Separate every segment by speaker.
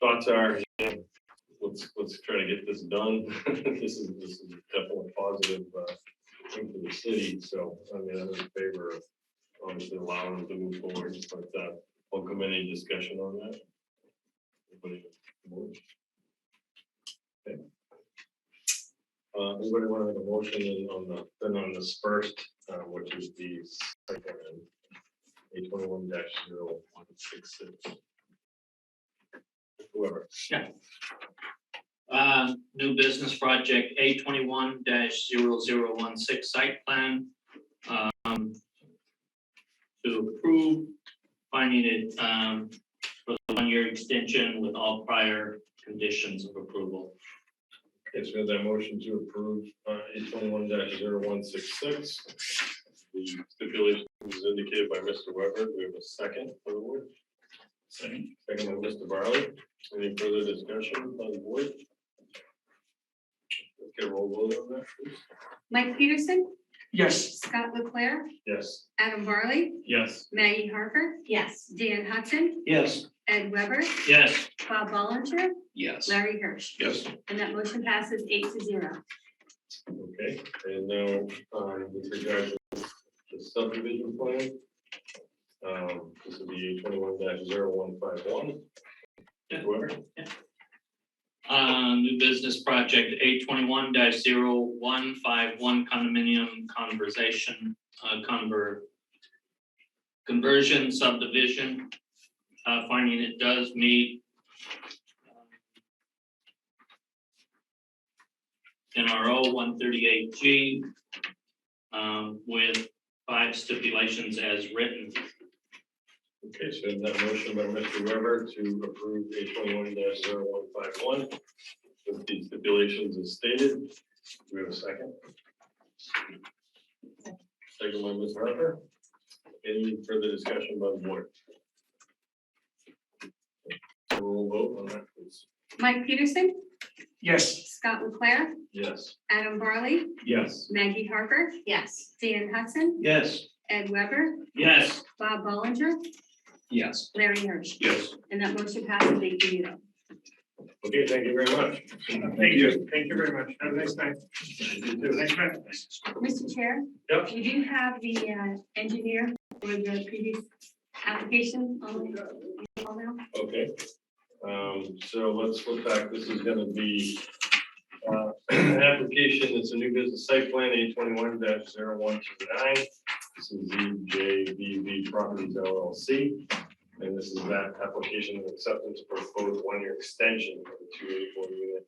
Speaker 1: thoughts are, you know, let's, let's try to get this done. This is, this is definitely a positive uh, thing for the city, so, I mean, I'm in favor of obviously allowing them to move forward, but uh, welcome any discussion on that. Anybody? Okay. Uh, Anybody want to make a motion in on the, then on this first, uh, which is the second, A twenty-one dash zero one six six. Whoever.
Speaker 2: Uh, new business project A twenty-one 16 site plan. um, To approve, finding it, um, for the one-year extension with all prior conditions of approval.
Speaker 1: Okay, so we have that motion to approve uh, eight twenty-one dash zero one six six. The stipulation was indicated by Mr. Weber. We have a second for the board. Second. Second by Mr. Barley. Any further discussion on the board? Okay, roll call on that, please.
Speaker 3: Mike Peterson,
Speaker 4: Yes.
Speaker 3: Scott Leclair,
Speaker 1: Yes.
Speaker 3: Adam Varley,
Speaker 1: Yes.
Speaker 3: Maggie Harper. Yes. Dan Hudson,
Speaker 2: Yes.
Speaker 3: Ed Weber,
Speaker 2: Yes.
Speaker 3: Bob Ballinger,
Speaker 2: Yes.
Speaker 3: Larry Hirsch.
Speaker 1: Yes.
Speaker 3: And that motion passes eight to zero.
Speaker 1: Okay, and now, um, with regard to the subdivision plan. Um, this would be twenty-one dash zero one five one. Whoever.
Speaker 2: Uh, new business project A twenty-one 151 condominium conversation, uh, conver. Conversion subdivision, uh, finding it does meet. um, NRO one thirty-eight G. Um, with five stipulations as written.
Speaker 1: Okay, so in that motion by Mr. Weber to approve A twenty-one 151 with the stipulations as stated. Do we have a second? Second by Ms. Harper. Any further discussion by the board? Roll vote on that, please.
Speaker 3: Mike Peterson,
Speaker 4: Yes.
Speaker 3: Scott Leclair,
Speaker 1: Yes.
Speaker 3: Adam Varley,
Speaker 1: Yes.
Speaker 3: Maggie Harper. Yes. Dan Hudson,
Speaker 2: Yes.
Speaker 3: Ed Weber,
Speaker 2: Yes.
Speaker 3: Bob Ballinger,
Speaker 2: Yes.
Speaker 3: Larry Hirsch.
Speaker 1: Yes.
Speaker 3: And that motion passes eight to zero.
Speaker 1: Okay, thank you very much.
Speaker 4: Thank you. Thank you very much. Have a nice night. Thanks, man.
Speaker 3: Mr. Chair?
Speaker 1: Yep.
Speaker 3: You do have the uh, engineer for the previous application on on now?
Speaker 1: Okay, um, so let's look back, this is gonna be, uh, application, it's a new business site plan, eight twenty-one 129 This is E ZJBV Properties LLC, and this is that application of acceptance for proposed one-year extension of the two eighty-four unit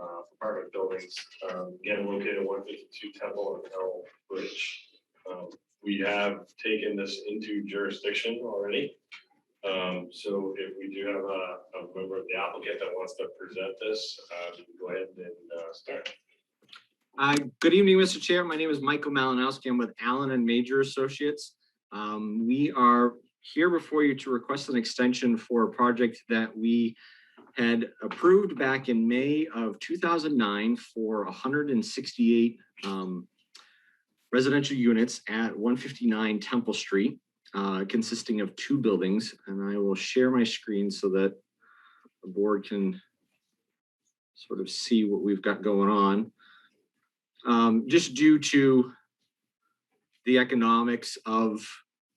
Speaker 1: uh, apartment buildings, um, again located one fifty-two Temple and L Bridge. Um, We have taken this into jurisdiction already, um, so if we do have a, a member of the applicant that wants to present this, uh, you can go ahead and, uh, start.
Speaker 5: Uh, Good evening, Mr. Chair. My name is Michael Malinowski. I'm with Allen and Major Associates. Um, We are here before you to request an extension for a project that we had approved back in May of 2009 for 168 um, residential units at 159 Temple Street, uh, consisting of two buildings. And I will share my screen so that the board can sort of see what we've got going on um, just due to the economics of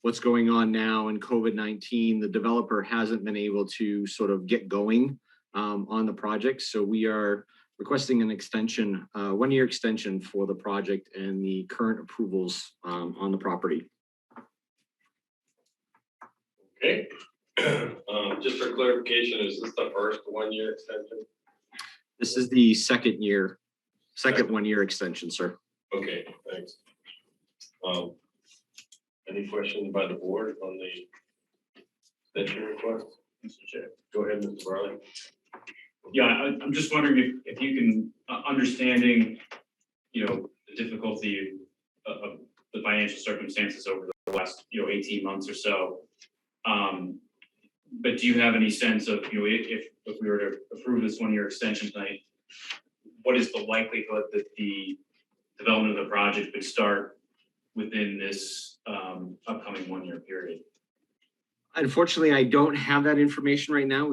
Speaker 5: what's going on now and COVID-19, the developer hasn't been able to sort of get going um, on the project. So we are requesting an extension, uh, one-year extension for the project and the current approvals um, on the property.
Speaker 1: Okay, um, just for clarification, is this the first one-year extension?
Speaker 5: This is the second year, second one-year extension, sir.
Speaker 1: Okay, thanks. Um, any questions by the board on the extension request?
Speaker 6: Mr. Chair.
Speaker 1: Go ahead, Mr. Barley.
Speaker 6: Yeah, I, I'm just wondering if, if you can, uh, understanding, you know, the difficulty of, of the financial circumstances over the last, you know, eighteen months or so. Um, but do you have any sense of, you know, i- if, if we were to approve this one-year extension tonight, what is the likelihood that the development of the project could start within this, um, upcoming one-year period?
Speaker 5: Unfortunately, I don't have that information right now.